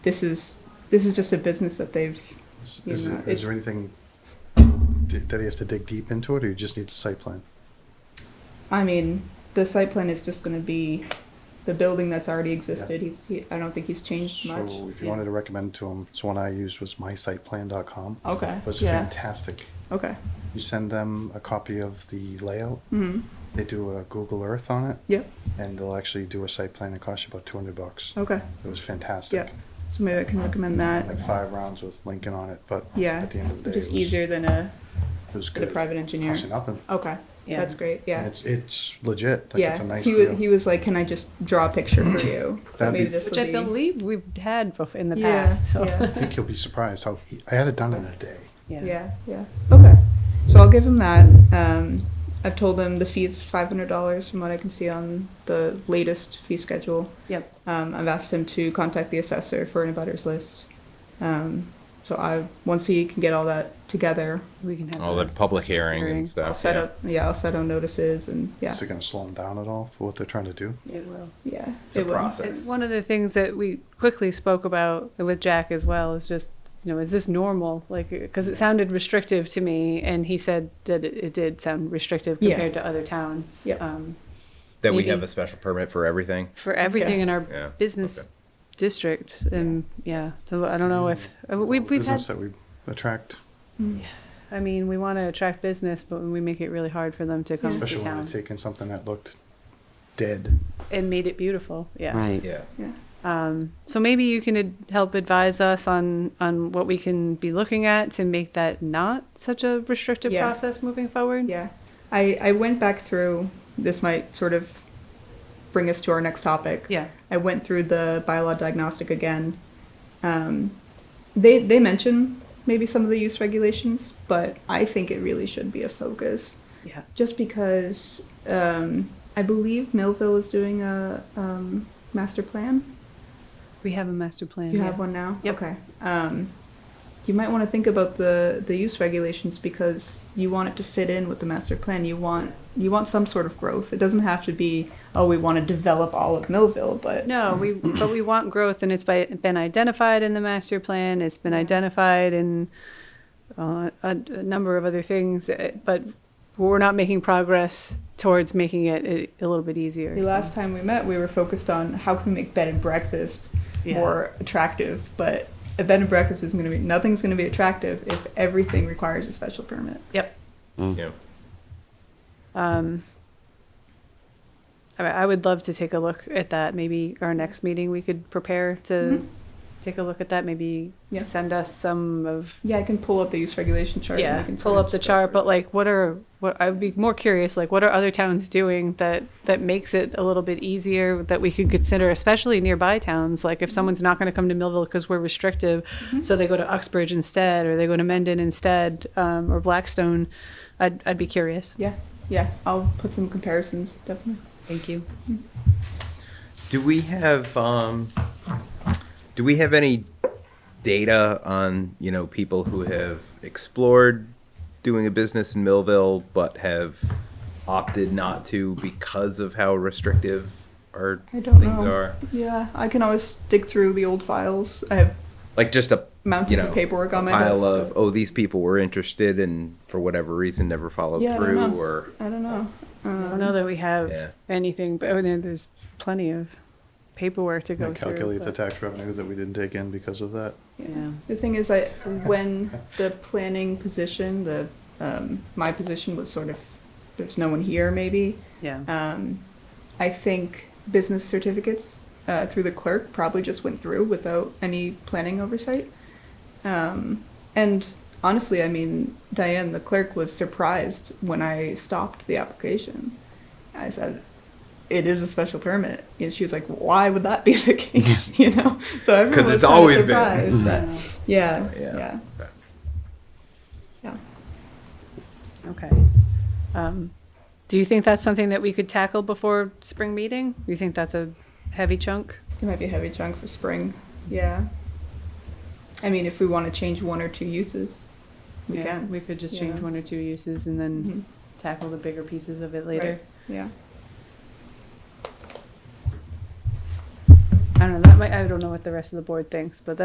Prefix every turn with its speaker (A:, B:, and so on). A: this is this is just a business that they've
B: Is,
A: You
B: is,
A: know,
B: it- is
A: it's-
B: there anything d- that he has to dig deep into it, or you just need the site plan?
A: I mean, the site plan is just going to be the building that's already existed. He's, he, I don't think he's changed much.
B: So if you
A: Yeah.
B: wanted to recommend to him, so one I used was mysiteplan.com.
A: Okay,
B: It was
A: Oh, yeah.
B: fantastic.
A: Okay.
B: You send them a copy of the layout,
A: Mm-hmm.
B: they do a Google Earth on it,
A: Yep.
B: and they'll actually do a site plan that costs you about 200 bucks.
A: Okay.
B: It was fantastic.
A: Yeah. So maybe I can recommend that.
B: Like five rounds with Lincoln on it, but
A: Yeah.
B: at the end of the
A: Which
B: day,
A: is
B: it was,
A: easier than a,
B: It was
A: than a
B: good.
A: private engineer.
B: Cost you nothing.
A: Okay.
C: Yeah.
A: That's great. Yeah.
B: And It's it's legit. Like
A: yeah.
B: it's a nice
A: he,
B: deal.
A: was, he was like, "Can I just draw a picture for you?"
B: That'd
A: maybe
B: be-
A: this
C: Which
A: will
C: I
A: be-
C: believe we've had bef- in the
A: Yeah,
C: past, so.
A: yeah.
B: I think you'll be surprised how e- I had it done in a day.
A: Yeah, yeah. Okay. So I'll give him that. Um, I've told him the fee's five hundred dollars from what I can see on the latest fee schedule.
C: Yep.
A: Um, I've asked him to contact the assessor for an abutters list. Um, so I once he can get all that together,
C: We can have.
D: All the
C: that.
D: public hearing
C: Hearing.
D: and stuff.
A: I'll set
D: yeah.
A: up yeah, I'll set up notices and yeah.
B: Is it going to slow them down at all for what they're trying to do?
C: It will.
A: yeah.
D: It's a
A: it will.
D: process.
C: And one of the things that we quickly spoke about with Jack as well is just, you know, is this normal? Like, because it sounded restrictive to me, and he said that it, it did sound restrictive
A: Yeah.
C: compared to other towns.
A: Yep.
C: Um,
D: That we
C: Maybe.
D: have a special permit for everything.
C: for everything in our
D: Yeah,
C: business
D: okay.
C: district, and yeah, so I don't know if uh, we,
B: All the
C: we've had.
B: business that we attract,
A: mm,
C: I mean, we want to attract business, but we make it really hard for them to come to
B: especially when
C: town
B: they're taking something that looked dead.
C: and made it beautiful. Yeah.
E: Right.
D: Yeah.
A: Yeah.
C: Um, so maybe you can ad- help advise us on, on what we can be looking at to make that not such a restrictive
A: Yeah.
C: process moving forward.
A: Yeah. I, I went back through this might sort of bring us to our next topic.
C: Yeah.
A: I went through the bylaw diagnostic again. Um, they they mention maybe some of the use regulations, but I think it really should be a focus,
C: Yeah.
A: just because um, I believe Millville is doing a um, master plan.
C: We have a master plan.
A: You
C: yeah.
A: have one now.
C: Yep.
A: Okay. Um, you might want to think about the the use regulations because you want it to fit in with the master plan. You want you want some sort of growth. It doesn't have to be oh we want to develop all of Millville, but
C: No, we, but we want growth and it's by, been identified in the master plan. It's been identified in uh, a, a number of other things, eh, but we're not making progress towards making it eh, a, a little bit easier.
A: The
C: so.
A: last time we met, we were focused on how can we make bed and breakfast
C: Yeah.
A: more attractive, but a bed and breakfast isn't going to be nothing's going to be attractive if everything requires a special permit.
C: Yep.
D: Yeah.
C: Um, I I would love to take a look at that. Maybe our next meeting, we could prepare to
A: Mhm.
C: take a look at that. Maybe
A: Yeah.
C: send us some of
A: Yeah, I can pull up the use regulation chart. and
C: yeah,
A: we can
C: pull
A: sort of
C: up the
A: start
C: chart.
A: with-
C: But like, what are what I'd be more curious like what are other towns doing that that makes it a little bit easier that we could consider, especially nearby towns. Like if
A: Mm-hmm.
C: someone's not going to come to Millville because we're restrictive, so they go to Uxbridge instead, or they go to Mendon instead, um, or Blackstone. I'd I'd be curious.
A: yeah, yeah, I'll put some comparisons definitely.
C: Thank you.
D: Do we have um, do we have any data on you know people who have explored doing a business in Millville but have opted not to because of how restrictive our
A: I don't
D: things
A: know.
D: are?
A: Yeah, I can always dig through the old files. I have
D: Like just a
A: mountains
D: you know,
A: of paperwork on my
D: pile
A: desk,
D: of
A: but-
D: oh these people were interested and for whatever reason never followed
A: Yeah, I don't
D: through
A: know.
D: or
A: I don't know. Um,
C: I
A: Mm.
C: don't know that we have
D: Yeah.
C: anything, but oh, there- there's plenty of paperwork to go
B: They
C: through.
B: calculate the
C: but-
B: tax revenue that we didn't take in because of that.
C: Yeah.
A: The thing is, I when the planning position, the um, my position was sort of there's no one here maybe.
C: Yeah.
A: Um, I think business certificates uh, through the clerk probably just went through without any planning oversight. Um, and honestly, I mean, Diane, the clerk, was surprised when I stopped the application. I said, "It is a special permit," and she was like, "Why would that be the case?" you know. So everyone was
D: it's
A: kinda
D: always been.
A: surprised that-
C: Yeah.
A: yeah,
D: yeah.
A: yeah,
D: Okay.
A: yeah.
C: Okay. Um, do you think that's something that we could tackle before spring meeting? You think that's a heavy chunk?
A: It might be a heavy chunk for spring. Yeah. I mean, if we want to change one or two uses, we
C: Yeah,
A: can.
C: We could just change
A: Yeah.
C: one or two uses and then
A: Mhm.
C: tackle the bigger pieces of it later.
A: Yeah.
C: I don't know. That might, I don't know what the rest of the board thinks, but that.